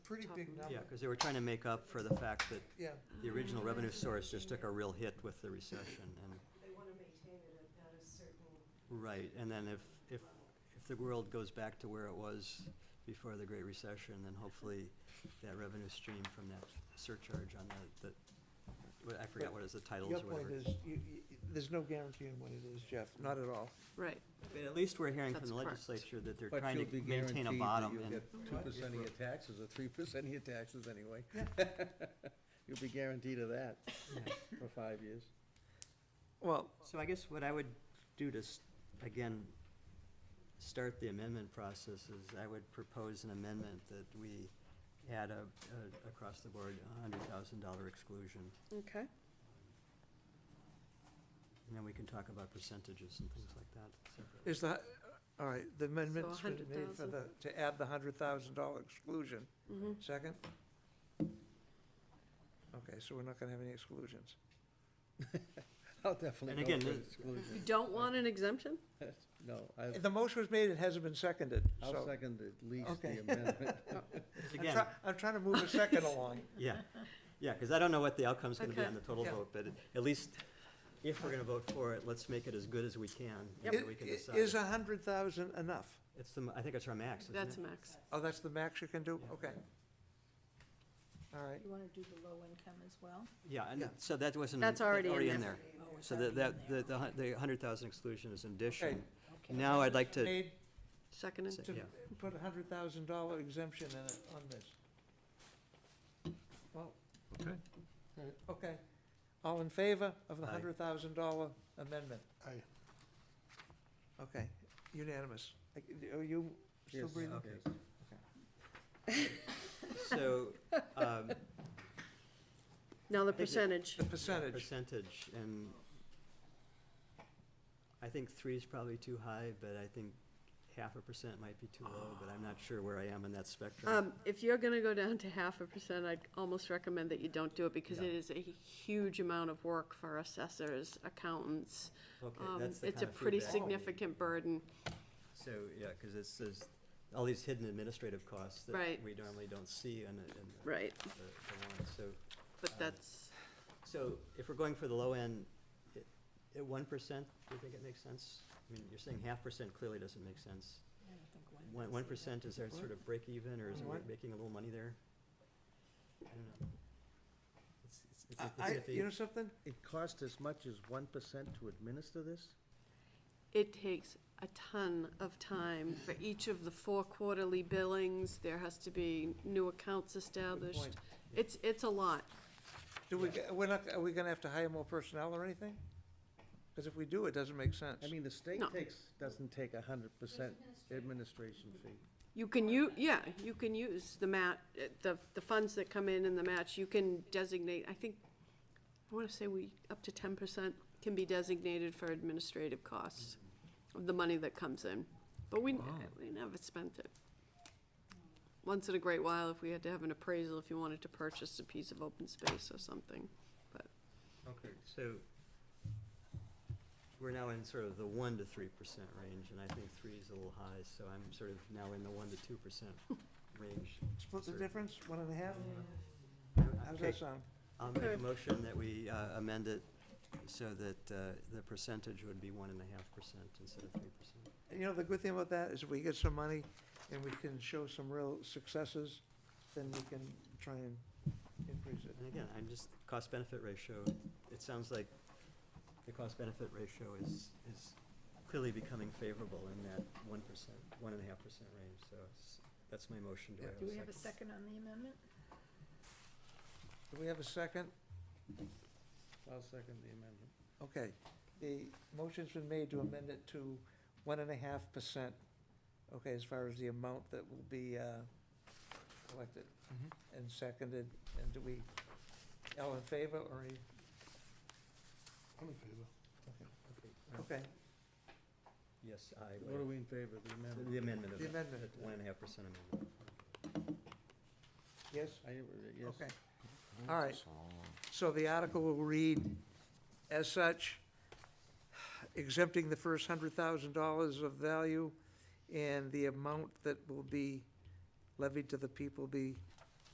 pretty top big of- number. Yeah, because they were trying to make up for the fact that Yeah, the original revenue source just took a real hit with the recession, and, They want to maintain it at at a certain right, and then if, if, if the world goes back to where it was before the Great Recession, then hopefully that revenue stream from that surcharge on the, the, I forgot what is the titles your or point whatever. is, you, you, there's no guarantee in what it is, Jeff, not at all. Right, But At least we're hearing from That's the correct. legislature that they're But trying you'll to be maintain guaranteed a that bottom, you'll and, get two percent of your taxes or three percent of your taxes anyway. You'll be guaranteed of that for five years. Well, so I guess what I would do to, s- again, start the amendment process is I would propose an amendment that we add a, a- across the board, a hundred thousand dollar exclusion, okay. and then we can talk about percentages and things like that. separately. is that, all right, the amendment's been made for 100,000. the, to add the hundred thousand dollar exclusion. Mhm. Second? Okay, so we're not gonna have any exclusions. I'll And definitely again, go for the- You exclusion. don't want an exemption? No, I, The motion was made, it hasn't been seconded, I'll so. second at least Okay. the amendment. I'm Again, try- I'm trying to move a second along. Yeah, yeah, because I don't know what the outcome's going to be Okay. on the total Yeah. vote, but at least if we're going to vote for it, let's make it as good as we can. and then we can Is- Is decide. a hundred thousand enough? It's the, I think it's our max, isn't it? That's max. Oh, that's the max you can do? Yeah. Okay. All right. You want to do the low income as well? Oh, Yeah, Yeah. and so that wasn't. That's already in there. there. So that, that, the- the, hun- the hundred thousand exclusion is an addition. Okay. Now I'd like to, Made Seconded? Yeah. to put a hundred thousand dollar exemption in it on this. Well, uh, Okay. okay. All in favor of the Aye. hundred thousand dollar amendment? Aye. Okay, unanimous. Like, Are you still Yes, breathing? yes. so, um, Now the percentage. The percentage, percentage, and I think three is probably too high, but I think half a percent might be too low, but I'm not sure where I am in that spectrum. Um, If you're going to go down to half a percent, I'd almost recommend that you don't do it because Yeah. it is a huge amount of work for assessors, accountants. Okay, Um, that's the It's a kind of pretty feedback we need. significant burden. So, yeah, because it's, there's all these hidden administrative costs that Right. we normally don't see in, the- in the. Right. the- the warrant. so, But that's, so if we're going for the low end, it- at one percent, do you think it makes sense? I mean, you're saying half percent clearly doesn't make sense. One, one percent, is there sort of break even, or is it What? making a little money there? I don't know. It's, it's, it's I, it's I- you know iffy. something? It costs as much as one percent to administer this? it takes a ton of time for each of the four quarterly billings. There has to be new accounts established. point. It's, it's a lot. Do we, we're not, are we gonna have to hire more personnel or anything? Because if we do, it doesn't make sense. I mean, the state No. takes, doesn't take a hundred percent administration fee. You can u, yeah, you can use the mat, uh, the, the funds that come in and the match, you can designate, I think, I wanna say we, up to ten percent can be designated for administrative costs Mm-hmm. of the money that comes in, but we, we never spent it. Once in a great while, if we had to have an appraisal, if you wanted to purchase a piece of open space or something, but, Okay, so we're now in sort of the one to three percent range, and I think three is a little high, so I'm sort of now in the one to two percent range. Split the Sure. difference, one and a half? How's Okay, that sound? I'll make a motion that we uh, amend it so that uh, the percentage would be one and a half percent instead of three percent. You know, the good thing about that is if we get some money and we can show some real successes, then we can try and increase it. And again, I'm just, cost-benefit ratio, it sounds like the cost-benefit ratio is, is clearly becoming favorable in that one percent, one and a half percent range, so it's- that's my motion. Do I Do we have a second on the amendment? Do we have a second? I'll second the amendment. Okay. The motion's been made to amend it to one and a half percent, okay, as far as the amount that will be uh, collected Mm-hmm. and seconded. And do we, all in favor or, any- I'm in favor. okay, Yes, I, What are we in favor of, the the amendment? amendment of The it, amendment. the one and a half percent amendment. yes? I, uh, yes. Okay. All right. So the article will read, as such, exempting the first hundred thousand dollars of value and the amount that will be levied to the people be